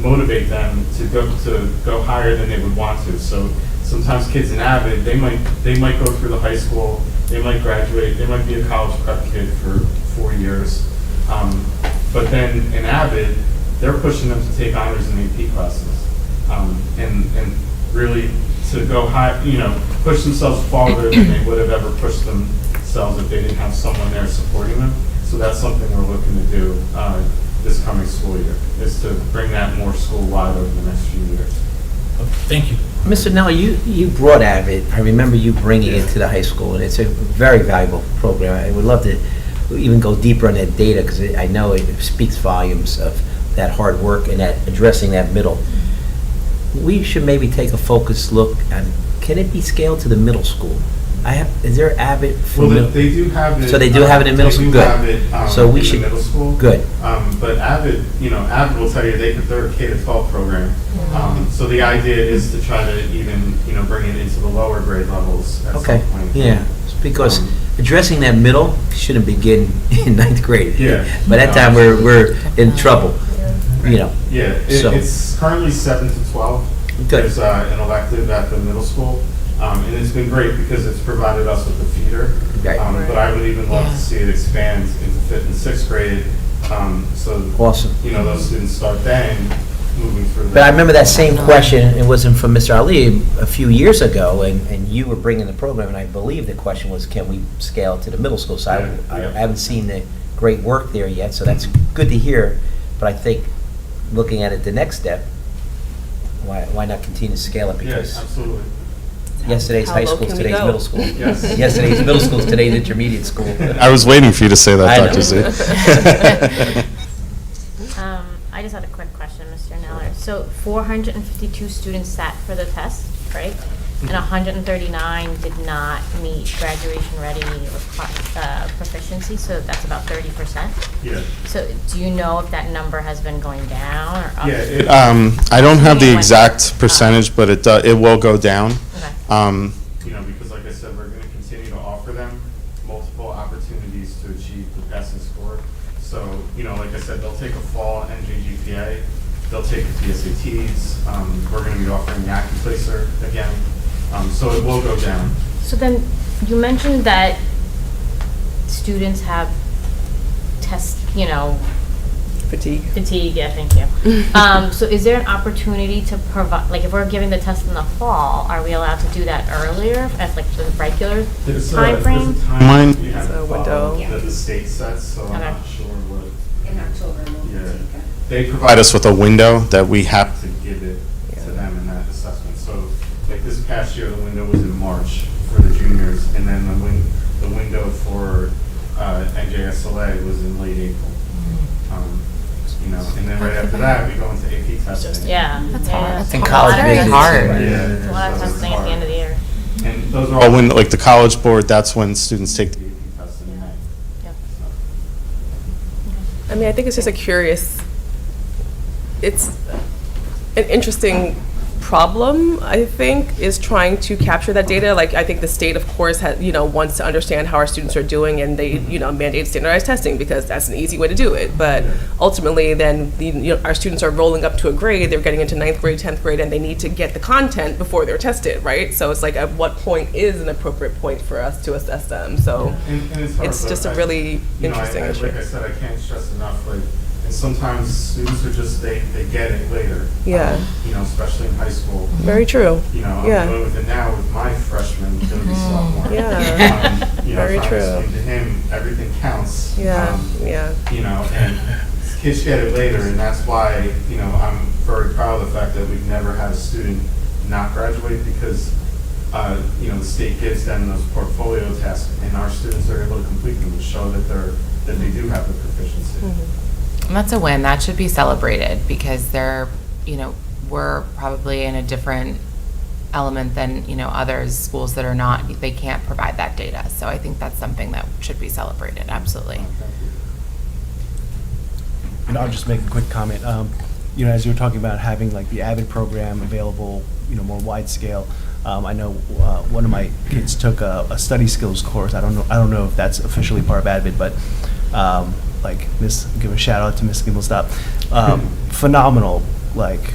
motivate them to go, to go higher than they would want to. So sometimes kids in Avid, they might, they might go through the high school, they might graduate, they might be a college prep kid for four years. Um, But then in Avid, they're pushing them to take honors and AP classes. Um, And, and really to go high, you know, push themselves farther than they would have ever pushed themselves if they didn't have someone there supporting them. So that's something we're looking to do uh, this coming school year, is to bring that more school-wide over the next few years. Thank you. Mr. Nell, you, you brought Avid, I remember you bringing it to the high school, and it's a very valuable program. I would love to even go deeper on that data, because I know it speaks volumes of that hard work and that, addressing that middle. We should maybe take a focused look at, can it be scaled to the middle school? I have, is there Avid for Well, they- middle? they do have it. uh, So they do have it in middle they do school? Good. have it, um, So in we the should- middle school. Good. Um, But Avid, you know, Avid will tell you, they, could- they're a K to 12 program. Um, So the idea is to try to even, you know, bring it into the lower grade levels at some Okay, point. yeah, it's because Um, addressing that middle shouldn't begin in ninth grade. Yeah. By that time, we're, we're in trouble, you know. Yeah, it- So- it's currently 7 to 12. Good. There's uh, an elective at the middle school, um, and it's been great because it's provided us with the feeder. Right. Um, But I would even love Yeah. to see it expand into fifth and sixth grade, um, so Awesome. you know, those students start then moving through. But I remember that same question, it wasn't from Mr. Ali, a few years ago, and, and you were bringing the program, and I believe the question was, can we scale to the middle school? So I, I Yeah, yeah. haven't seen the great work there yet, so that's good to hear, but I think, looking at it, the next step, why, why not continue to scale it? Yes, Because absolutely. yesterday's How high low school, can we today's go? middle school. Yes. Yesterday's middle school, today's intermediate school. I was waiting for you to say that, I know. Dr. Z. Um, I just had a quick question, Mr. Neller. So four hundred and fifty-two students sat for the test, right? And Mhm. hundred and thirty-nine did not meet graduation ready requi- uh, proficiency, so that's about thirty percent. Yeah. So do you know if that number has been going down or up? Yeah, it- Um, I don't have the exact percentage, but it, do- it will go down. Okay. Um, You know, because like I said, we're gonna continue to offer them multiple opportunities to achieve the passing score. So, you know, like I said, they'll take a fall NJGPA, they'll take the PSATs, um, we're gonna be offering the Accuplacer again. Um, so it will go down. So then, you mentioned that students have test, you know, Fatigue. Fatigue, yeah, thank you. Um, so is there an opportunity to provide, like, if we're giving the test in the fall, are we allowed to do that earlier at like the regular There's uh, a- timeframe? There's a timeline Mine- you have There's to a follow window. that the state sets, so I'm Okay. not sure what, In October, we'll take yeah. that. They Provide us with a window that we have, to give it to Yeah. them in that assessment. So like this past year, the window was in March for the juniors, and then the win, the window for uh, NJSLA was in late April. Um, You know, and then right after that, we go into AP testing. Yeah. That's yeah, hard. that's And a college lot of- visits. hard. Yeah. A lot of So it's testing at the end of the year. hard. And those are all. or when, like, the college board, that's when students take The AP testing in May. Yep. So- I mean, I think it's just a curious, it's an interesting problem, I think, is trying to capture that data. Like, I think the state, of course, has, you know, wants to understand how our students are doing, and they, you know, mandate standardized testing because that's an easy way to do it. But ultimately, then, the- you know, our students are rolling up to a grade, they're getting into ninth grade, 10th grade, and they need to get the content before they're tested, right? So it's like, at what point is an appropriate point for us to assess them? So And- and hard, it's but just a I- really you know, I- interesting I- issue. Like I said, I can't stress enough, like, and sometimes students are just, they, they get it later. Yeah. You know, especially in high school. Very true. You know, I'm Yeah. Mm-hmm. going with it now with my freshman, gonna be sophomore. Yeah. Um, you know, Very if I true. explain to him, everything counts. Yeah, um, yeah. You know, and kids get it later, and that's why, you know, I'm very proud of the fact that we've never had a student not graduate because, uh, you know, the state gives them those portfolio tests, and our students are able to complete them to show that they're, that they do have the proficiency. And that's a win. That should be celebrated because they're, you know, we're probably in a different element than, you know, others, schools that are not, they can't provide that data. So I think that's something that should be celebrated, absolutely. And I'll just make a quick comment. Um, You know, as you were talking about having like the Avid program available, you know, more wide scale, um, I know uh, one of my kids took a a study skills course. I don't know, I don't know if that's officially part of Avid, but um, like, Miss, give a shout out to Miss Gimelstob. Um, Phenomenal like